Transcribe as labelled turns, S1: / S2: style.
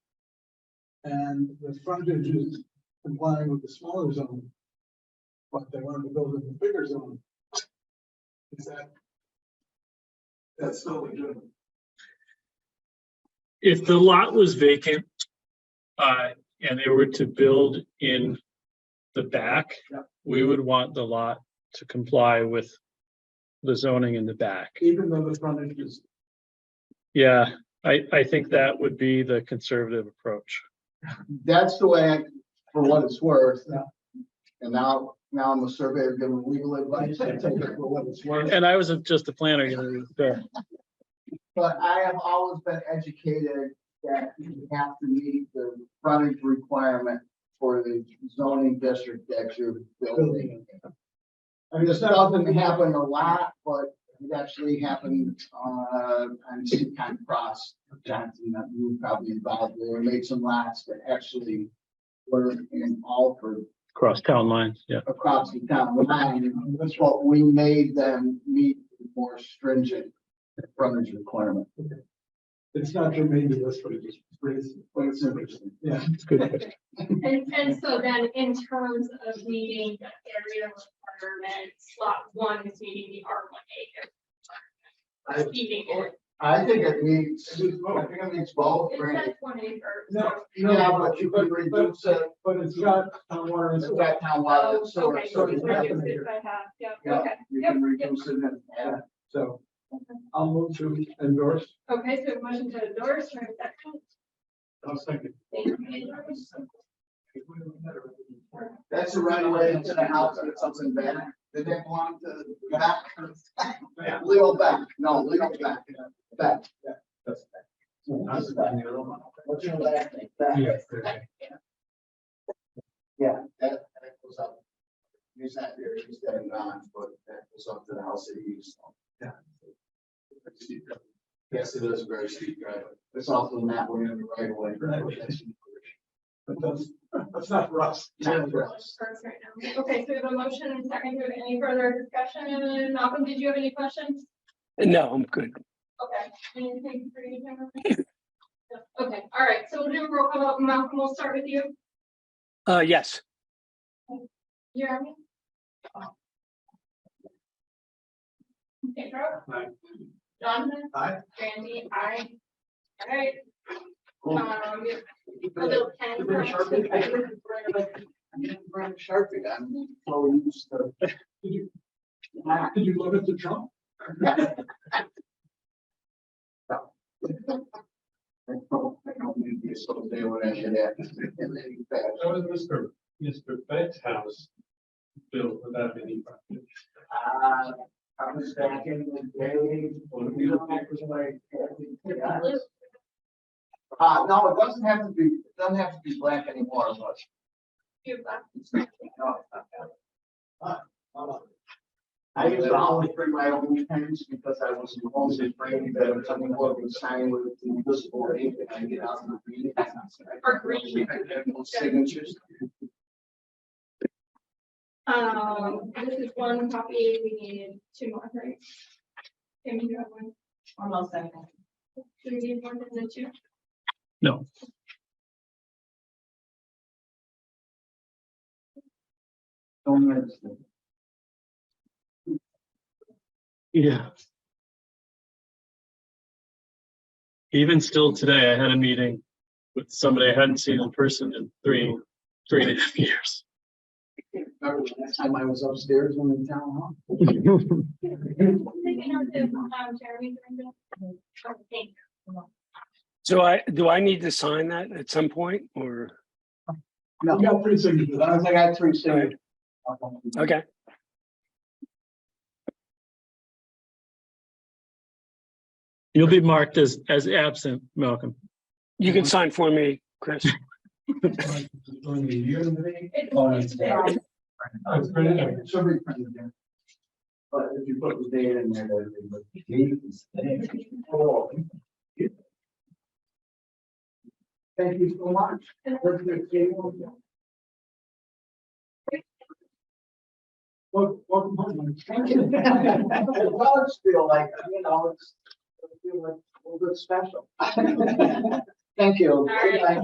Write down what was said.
S1: And the frontage is complying with the smaller zone. But they wanted to build in the bigger zone. Is that? That's still legitimate.
S2: If the lot was vacant, uh, and they were to build in the back,
S1: Yep.
S2: we would want the lot to comply with the zoning in the back.
S1: even though the frontage is
S2: Yeah, I, I think that would be the conservative approach.
S3: That's the way, I- for what it's worth.
S1: Yeah.
S3: And now, now I'm a surveyor giving legal advice, I take it for what it's worth.
S2: And I was just a planner, you know, so,
S3: But I have always been educated that you have to meet the frontage requirement for the zoning district that you're building. I mean, this doesn't happen a lot, but it actually happened, uh, on Seacon Cross, Johnson, that you were probably involved there, made some lots that actually were in Alford
S2: cross town lines, yeah.
S3: across the town line, and that's what we made them meet the more stringent frontage requirement.
S1: It's not germane to this, but it just raises.
S3: But it's interesting.
S1: Yeah,
S2: It's good.
S4: And, and so then in terms of meeting the area requirements, lot one is meeting the R one
S3: I-
S4: acre. Meeting it,
S3: I think it meets, I think it meets both,
S4: it
S3: right?
S4: says one Oh, acre.
S1: No,
S3: Yeah, but you could reduce it,
S1: but it's uh, got town water and
S3: it's
S1: sewer.
S3: got town water
S4: Oh,
S3: and sewer,
S4: okay,
S3: so
S4: so
S3: you
S4: it's
S1: not
S3: can,
S4: reduced
S1: gonna-
S4: if I have, yeah,
S3: yeah,
S4: okay.
S3: you
S4: Yep,
S3: can
S4: yep.
S3: reduce it and add.
S1: So I'll move to endorse.
S4: Okay, so motion to endorse, for a second.
S1: I'll second.
S4: Thank you.
S3: That's the right way into the house, and it's something bad. Did they belong to the back?
S1: Yeah.
S3: Leo back, no, Leo back, back.
S1: That's
S3: That's back. What's your last name? Back. Yeah, that, that goes up. He's not here, he's got a non, but that goes up to the house that he used.
S1: Yeah.
S3: Yes, it is a very steep driveway. It's off the map, we're in the right away.
S1: Right. But that's, that's not for us.
S3: Not for us.
S4: Starts right now. Okay, so we have a motion and second, Do we have any further discussion? Malcolm, did you have any questions?
S5: No, I'm good.
S4: Okay, anything for you, Cameron? Okay, all right, so we'll do a roll call, vote. Malcolm, we'll start with you.
S5: Uh, yes,
S4: Jeremy? Pedro?
S1: Aye.
S4: Jonathan?
S1: Aye.
S4: Randy, aye. All right.
S3: Cool.
S4: Um, a little pen.
S3: Bring a Sharpie. I didn't bring a- I didn't bring a Sharpie, I'm so used to.
S1: Did you, did you limit the Trump?
S3: I don't, I don't need to be so day when I should act. And then you pass.
S6: That was Mr. Mr. Bett's house built without any frontage.
S3: Uh, I was back in the day when we were back with my. Uh, no, it doesn't have to be, it doesn't have to be black anymore, but. no, it's not that. I used to always bring my own pens because I was always afraid that if someone was signing with the invisible ink and I get out and read it.
S4: Or green.
S3: I have no Signatures.
S4: Um, this is one copy, we need two more, right? Can you have one?
S7: Almost second.
S4: Do we need more than the two?
S2: No.
S3: Don't mention
S2: Yeah. Even still today, I had a meeting with somebody I hadn't seen in person in three, three and a half years.
S3: it. Remember the last time I was upstairs when in town hall?
S4: Taking out the, um, Jeremy. Brenda? Oh, thank you.
S5: so I, do I need to sign that at some point or,
S3: No.
S1: You got three signatures.
S3: As long as I got three signatures.
S5: okay,
S2: You'll be marked as, as absent, Malcolm.
S5: you can sign for me, Chris.
S1: During the year meeting.
S4: It's
S1: Oh, it's-
S4: there.
S1: Oh,
S6: I was printing it.
S3: Should be printed there. But if you put the date in there, that'd be good. Oh, Thank you so much. Let's get table.
S1: Wel- Welcome home.
S3: Thank you. It does feel like, you know, it's, it feels like a little bit special. Thank you.
S4: right.